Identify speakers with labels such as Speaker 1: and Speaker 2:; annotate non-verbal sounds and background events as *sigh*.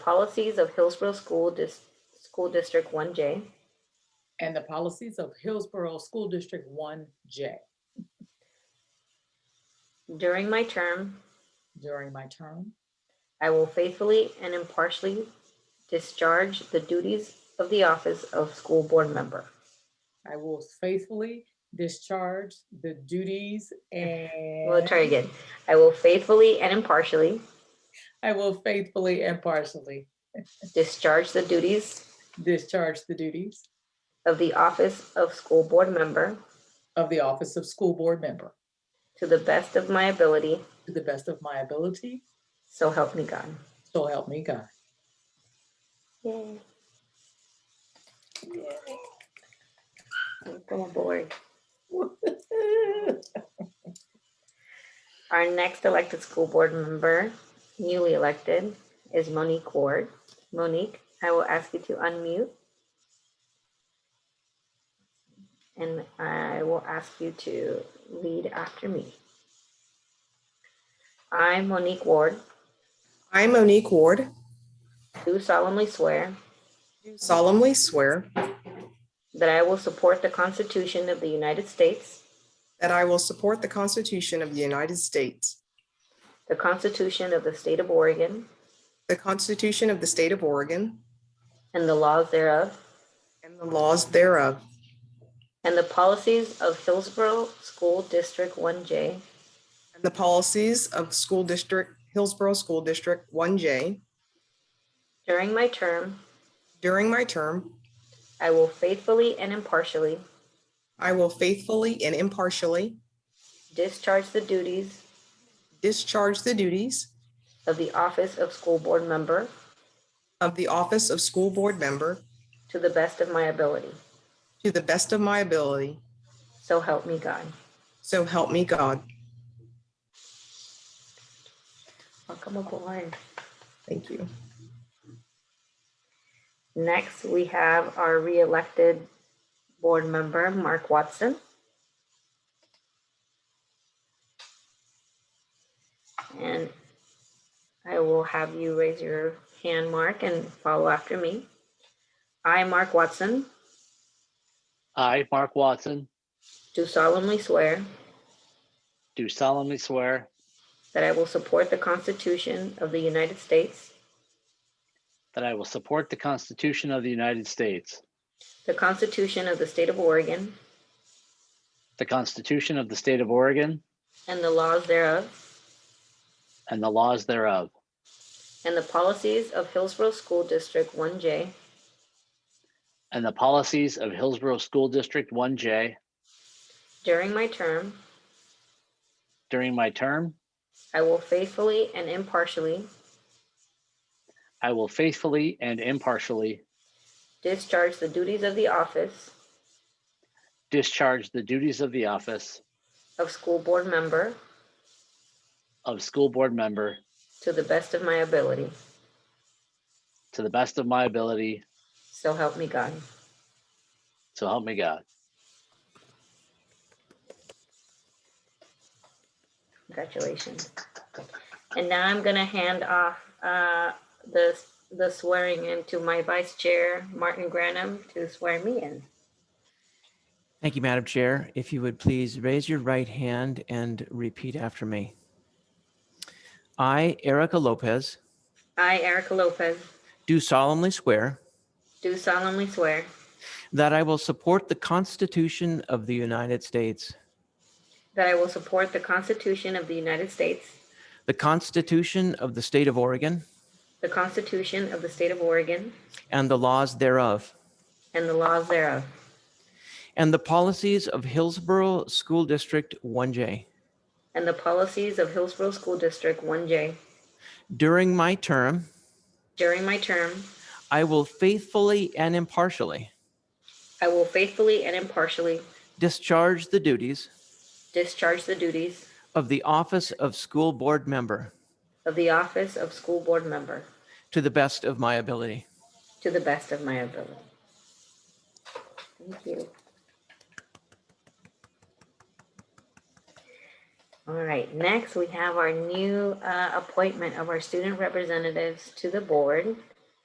Speaker 1: policies of Hillsborough School Dis- School District one J,
Speaker 2: and the policies of Hillsborough School District 1J
Speaker 1: during my term,
Speaker 2: during my term.
Speaker 1: I will faithfully and impartially discharge the duties of the office of school board member.
Speaker 2: I will faithfully discharge the duties and
Speaker 1: We'll try again. I will faithfully and impartially
Speaker 2: I will faithfully and partially
Speaker 1: discharge the duties
Speaker 2: discharge the duties
Speaker 1: of the office of school board member
Speaker 2: of the office of school board member
Speaker 1: to the best of my ability,
Speaker 2: to the best of my ability.
Speaker 1: so help me God.
Speaker 2: So help me God. *laughs*
Speaker 1: Yay. Welcome aboard. Our next elected school board member, newly elected, is Monique Ward. Monique, I will ask you to unmute. And I will ask you to lead after me. I, Monique Ward,
Speaker 3: I, Monique Ward,
Speaker 1: do solemnly swear
Speaker 3: do solemnly swear
Speaker 1: that I will support the Constitution of the United States,
Speaker 3: that I will support the Constitution of the United States,
Speaker 1: the Constitution of the State of Oregon,
Speaker 3: the Constitution of the State of Oregon,
Speaker 1: and the laws thereof,
Speaker 3: and the laws thereof,
Speaker 1: and the policies of Hillsborough School District 1J,
Speaker 3: and the policies of School District, Hillsborough School District 1J.
Speaker 1: During my term,
Speaker 3: During my term,
Speaker 1: I will faithfully and impartially
Speaker 3: I will faithfully and impartially
Speaker 1: discharge the duties
Speaker 3: discharge the duties
Speaker 1: of the office of school board member
Speaker 3: of the office of school board member
Speaker 1: to the best of my ability.
Speaker 3: to the best of my ability.
Speaker 1: So help me God.
Speaker 3: So help me God.
Speaker 1: Welcome aboard.
Speaker 3: Thank you.
Speaker 1: Next, we have our re-elected board member, Mark Watson. And I will have you raise your hand, Mark, and follow after me. I, Mark Watson,
Speaker 4: I, Mark Watson,
Speaker 1: do solemnly swear
Speaker 4: do solemnly swear
Speaker 1: that I will support the Constitution of the United States,
Speaker 4: that I will support the Constitution of the United States,
Speaker 1: the Constitution of the State of Oregon,
Speaker 4: the Constitution of the State of Oregon,
Speaker 1: and the laws thereof,
Speaker 4: and the laws thereof,
Speaker 1: and the policies of Hillsborough School District 1J,
Speaker 4: and the policies of Hillsborough School District 1J.
Speaker 1: During my term,
Speaker 4: During my term,
Speaker 1: I will faithfully and impartially
Speaker 4: I will faithfully and impartially
Speaker 1: discharge the duties of the office
Speaker 4: discharge the duties of the office
Speaker 1: of school board member
Speaker 4: of school board member
Speaker 1: to the best of my ability.
Speaker 4: to the best of my ability,
Speaker 1: So help me God.
Speaker 4: so help me God.
Speaker 1: Congratulations. And now I'm going to hand off uh, the the swearing in to my vice chair, Martin Granum, to swear me in.
Speaker 5: Thank you, Madam Chair. If you would please raise your right hand and repeat after me. I, Erica Lopez,
Speaker 1: I, Erica Lopez,
Speaker 5: do solemnly swear
Speaker 1: do solemnly swear
Speaker 5: that I will support the Constitution of the United States,
Speaker 1: that I will support the Constitution of the United States,
Speaker 5: the Constitution of the State of Oregon,
Speaker 1: the Constitution of the State of Oregon,
Speaker 5: and the laws thereof,
Speaker 1: and the laws thereof,
Speaker 5: and the policies of Hillsborough School District 1J.
Speaker 1: and the policies of Hillsborough School District 1J.
Speaker 5: During my term,
Speaker 1: During my term,
Speaker 5: I will faithfully and impartially
Speaker 1: I will faithfully and impartially
Speaker 5: discharge the duties
Speaker 1: discharge the duties
Speaker 5: of the office of school board member
Speaker 1: of the office of school board member
Speaker 5: to the best of my ability.
Speaker 1: to the best of my ability. Thank you. All right, next we have our new uh, appointment of our student representatives to the board.